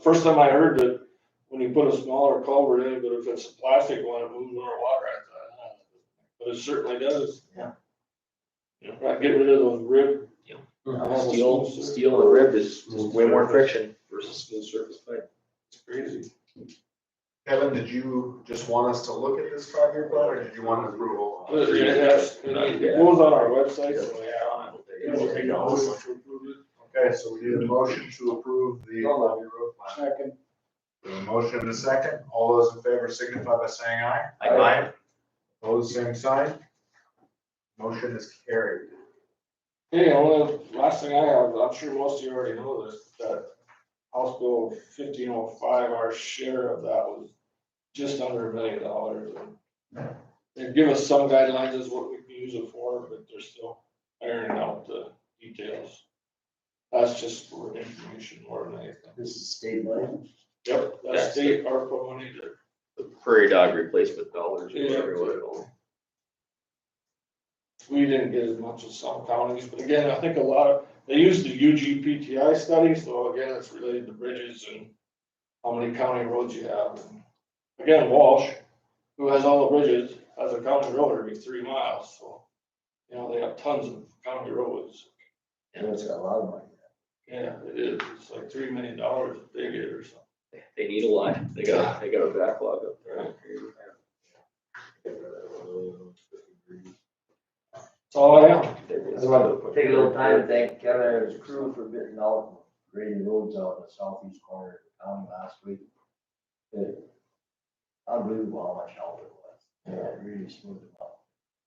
First time I heard that when you put a smaller culvert in, but if it's a plastic one, it moves more water. I thought, huh, But it certainly does. Yeah. Yeah, Right, get rid of those rib. Yeah. almost Steel, smooth surface. steel and rib is Smooth way more surface. friction versus smooth surface pipe. It's crazy. Kevin, did you just want us to look at this five-year plan, or did you want approval? But It it has- it goes on our website, so yeah. You know, we can always Okay, approve it. so we need a motion to approve the five-year road plan. Second. We have a motion and a second, all those in favor signify by saying aye. Aye. Aye. Opposed, same sign. Motion is carried. Hey, only last thing I have, I'm sure most of you already know this, that House Bill fifteen oh five, our share of that was just under a million dollars. and They give us some guidelines as what we can use it for, but they're still ironing out the details. That's just for information more than anything. This is state money. Yep, That's the- that's state ARPA money that The prairie dog replacement dollars or Yeah. whatever you wanna call them. we didn't get as much as some counties, but again, I think a lot of, they use the UGPTI study, so again, it's related to bridges and how many county roads you have. Again, Walsh, who has all the bridges, has a county road every three miles, so, you know, they have tons of county roads. You know, it's got a lot of money. Yeah, it is, it's like three million dollars a day or something. They- They need a lot. They got, they got a backlog up there. That's all I have. There I is. just wanted to take a little time to thank Kevin and his crew for bidding out, grading roads out in the southeast corner of town last week. It- Unbelievable how much help it was. Yeah, it really smoothed it out.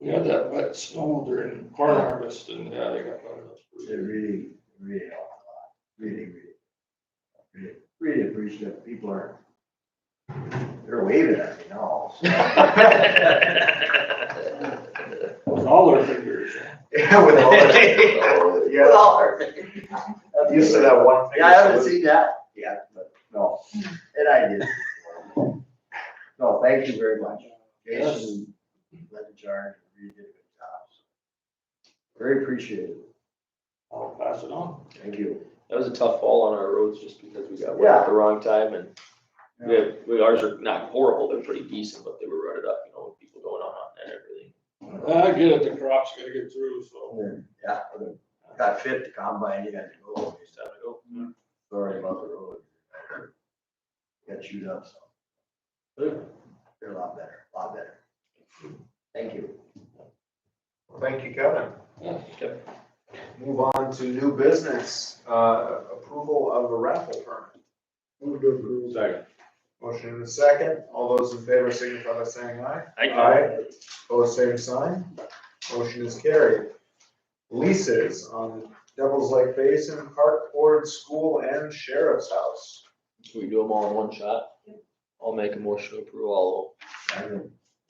We had that wet snow during corn harvest and, yeah, they got. that up. It really, really helped a lot. Really, really. Really, really appreciative. People are, they're waving at me now. so. With all their fingers. Yeah, with all the- yeah, I'm used to that one thing. Yeah, I haven't seen that yet, but no, and I did. No, thank you very much. Jason led the charge, you did a good job. Very appreciated. I'll pass it on. Thank you. That was a tough fall on our roads just because we got wet at the wrong time and we have, we, ours are not horrible. They're pretty decent, but they were rutted up, you know, with people going on and everything. I get it, the crop's gotta get through, so. Yeah, got fit to combine, you got to go, all this time ago. Sorry about the road. Got chewed up, so you're a lot better, a lot better. Thank you. Thank you, Kevin. Yeah. Move on to new business, uh, approval of a raffle permit. Move to approve. Second. Motion in a second, all those in favor signify by saying aye. Opposed, same sign, motion is carried. Leases on Devil's Lake Basin, Park Board, School, and Sheriff's House. Can we do them all in one shot? I'll make a motion to approve all We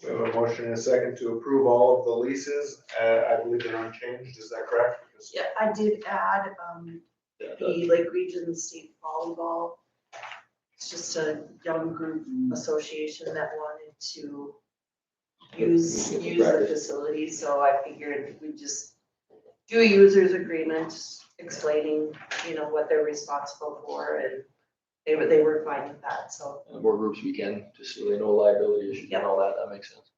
have a motion in a second to approve all of the leases, uh, I believe they're unchanged, is that correct? Yeah, I did add, um, of them. the Lake Region State Volleyball. It's just a young group association that wanted to use, Yeah, use the practice. facility, so I figured we just do a user's agreement explaining, you know, what they're responsible for, and they were, they were fine with that, so. And more groups we can, just so they know liability issues and all that, that makes sense.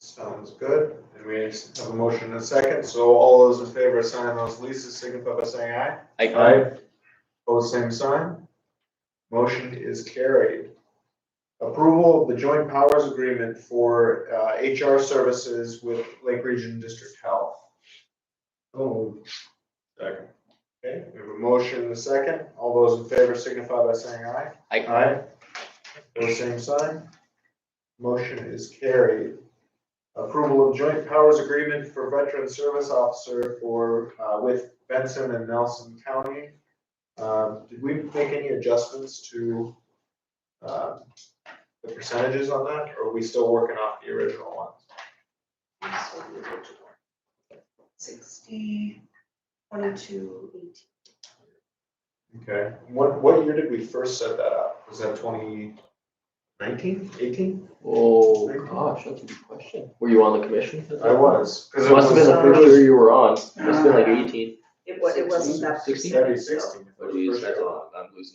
Sounds good, and we have a motion in a second, so all those in favor of signing those leases signify by saying aye. Pose same sign. Motion is carried. Approval of the joint powers agreement for uh, HR services with Lake Region District Health. Oh. Second. Okay, we have a motion and a second. All those in favor signify by saying aye. Aye. Pose same sign. Motion is carried. Approval of joint powers agreement for veteran service officer for, uh, with Benson and Nelson County. Um, did we make any adjustments to, uh, the percentages on that, or are we still working off the original ones? Sixty, twenty-two, eighteen. Okay, what, what year did we first set that up? Was that twenty nineteen, eighteen? Oh, gosh, that's a good question. Were you on the commission? I was, cause It it must have been the first was year you were on. Must have been like eighteen. It was, it wasn't that. Sixteen? thirty, sixteen. if it was Jeez, first that's a year. lot. I'm losing